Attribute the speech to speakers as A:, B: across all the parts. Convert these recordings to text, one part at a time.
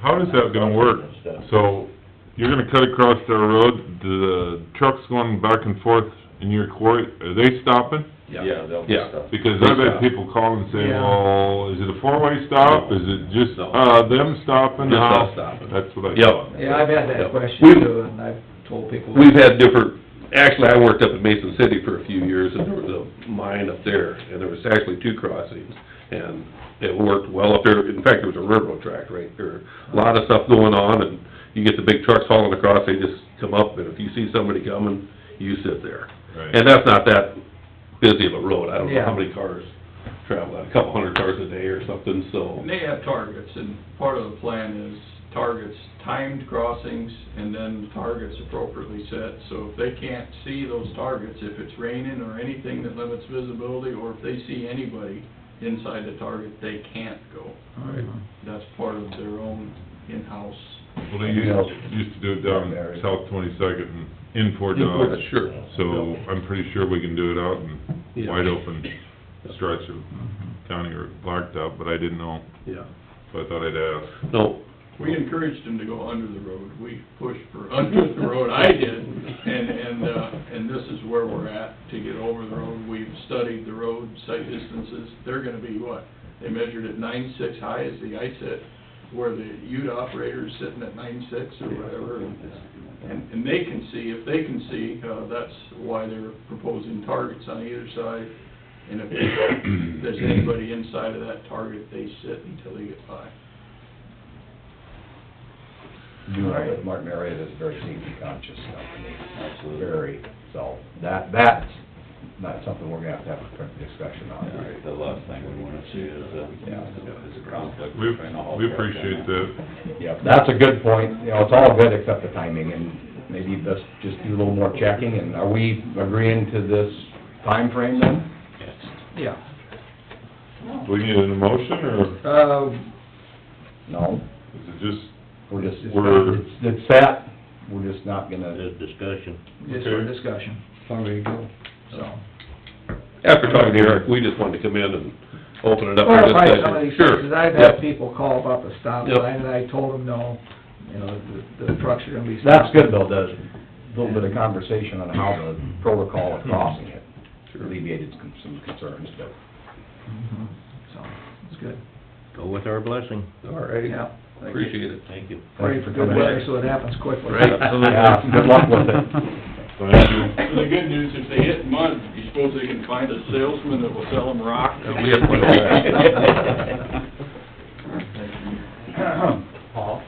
A: how is that gonna work? So, you're gonna cut across their road, the trucks going back and forth in your quarry, are they stopping?
B: Yeah, they'll be
C: Yeah.
B: stuck.
A: Because I've had people call and say,
D: Yeah.
A: well, is it a four-way stop? Is it just,
C: No.
A: uh, them stopping?
C: Just us
A: Uh,
C: stopping.
A: That's what I
C: Yep.
A: thought.
D: Yeah, I've had
C: Yeah.
D: that
C: We've-
D: question too, and I've told people.
C: We've had different, actually, I worked up in Mason City for a few years, and there was a mine up there, and there was actually two crossings, and it worked well up there, in fact, there was a railroad track right there, a lot of stuff going on, and you get the big trucks hauling across, they just come up, and if you see somebody coming, you sit there.
A: Right.
C: And that's not that busy of a road, I don't know how
D: Yeah.
C: many cars travel, that, a couple hundred cars a day or something, so,
E: And they have targets, and part of the plan is targets timed crossings, and then targets appropriately set. So if they can't see those targets, if it's raining or anything that limits visibility, or if they see anybody inside the target, they can't go. That's part of their own in-house.
A: Well, they used, used to do it down South Twenty-second and in Fort
C: yeah,
A: Dodge.
C: sure.
A: So I'm pretty sure we can do it out in
C: Yeah.
A: wide open stretch of county or blacktop, but I didn't know,
C: Yeah,
A: so I thought I'd ask.
C: no,
E: We encouraged them to go under the road. We pushed for under the road, I did. And, and, uh, and this is where we're at to get over the road. We've studied the road, sight distances. They're gonna be what? They measured at nine-six high as the eye set, where the ute operator's sitting at nine-six or whatever. And, and they can see, if they can see, uh, that's why they're proposing targets on either side. And if there's anybody inside of that target, they sit until they get by.
F: You know that Martin area is very safety conscious company,
B: Absolutely.
F: very, so that, that's not something we're gonna have to have a current discussion
B: Yeah,
F: on.
B: right. The last thing we wanna see is, uh, is a conflict
A: We,
B: between all.
A: we appreciate that.
F: Yeah, that's a good point, you know, it's all good except the timing, and maybe let's just do a little more checking, and are we agreeing to this time frame then?
D: Yeah.
A: Do we need an motion, or
D: Uh,
F: No,
A: is it just,
F: we're just,
A: We're-
F: it's, it's set, we're just not gonna,
G: discussion.
D: just for
A: Okay.
D: discussion. Sorry, go. So.
C: After talking to Eric, we just wanted to come in and open it up for
D: Clarify some of
C: discussion.
D: these
C: Sure.
D: things, 'cause I've
C: Yep.
D: had people call about the stop
C: Yep.
D: sign, and I told them, no, you know, the, the trucks are gonna be.
F: that's good though, the, little bit of conversation on how the protocol of crossing it alleviated some concerns, but.
D: Mhm. So, it's good,
G: Go with our blessing.
C: All right,
D: yeah. Thank you.
C: appreciate it.
G: Thank you.
D: Pray for good
F: coming in.
D: weather, so it happens quickly.
F: Yeah, good luck with it.
A: thank you?
E: And the good news, if they hit mud, you suppose they can find a salesman that will sell them rock?
C: Uh, we have one.
F: Paul?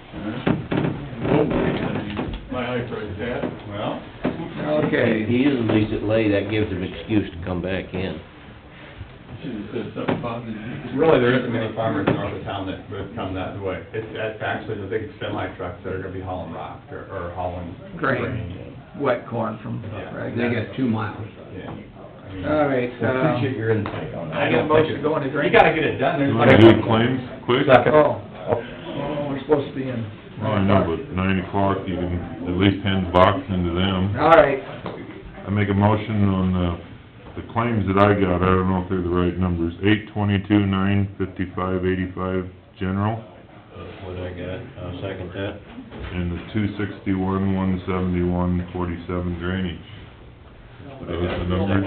E: My eye pricked that. Well.
D: Okay.
G: He usually leaves it lay, that gives him excuse to come back in.
E: Should've said something positive.
H: Really, there isn't many farmers north of town that would come that way. It's, that's actually the big semi trucks that are gonna be hauling rock or, or hauling
D: Grain.
H: grain.
D: Wet corn from,
H: Yeah.
D: right?
H: They got
D: two miles.
H: Yeah. I mean,
D: All right,
F: Well, Appreciate
D: um,
F: your insight on that.
D: I got a motion to go into
H: You
D: drainage.
H: gotta get it done. There's
A: Do you
H: like-
A: wanna do claims quick?
F: Second.
D: Oh, oh, we're supposed to be in.
A: Well, I know, but nine o'clock, you can at least hand the box into them.
D: All right,
A: I make a motion on uh, the, the claims that I got, I don't know if they're the right numbers, eight twenty-two, nine fifty-five, eighty-five, general,
G: What I
B: Uh,
G: got, I'll second that.
A: and the two sixty-one, one seventy-one, forty-seven drainage. Are those Uh, the numbers?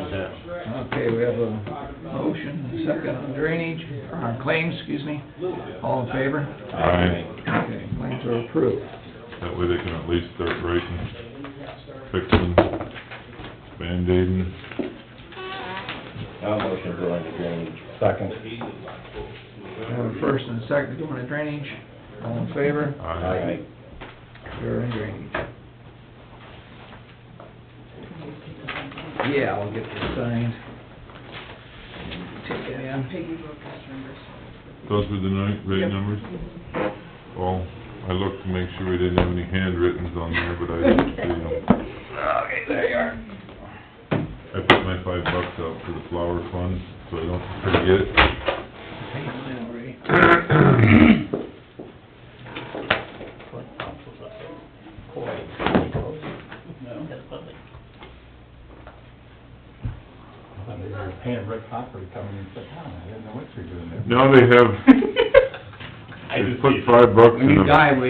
D: okay, we have a motion, a second on drainage, or on claims, excuse me. All in favor?
A: Aye,
D: Okay, claims are approved.
A: that way they can at least start writing, fixing, band-aiding.
B: I'll motion to go into drainage.
F: Second.
D: We have a first and a second to go into drainage. All in favor?
A: Aye.
D: We're in drainage. Yeah, I'll get this signed. Take it in.
I: Peggy wrote those numbers.
A: Those were the ni- right numbers? Well, I looked to make sure we didn't have any handwrittens on there, but I didn't see them.
D: Okay, there you are.
A: I put my five bucks out for the flower fund, so I don't forget it.
D: Hey, mine already.
H: They're paying Rick Hopper to come in and sit down. I didn't know what you're doing there.
A: Now they have,
H: I
J: Just put five bucks in
A: When
J: a...
A: you die, we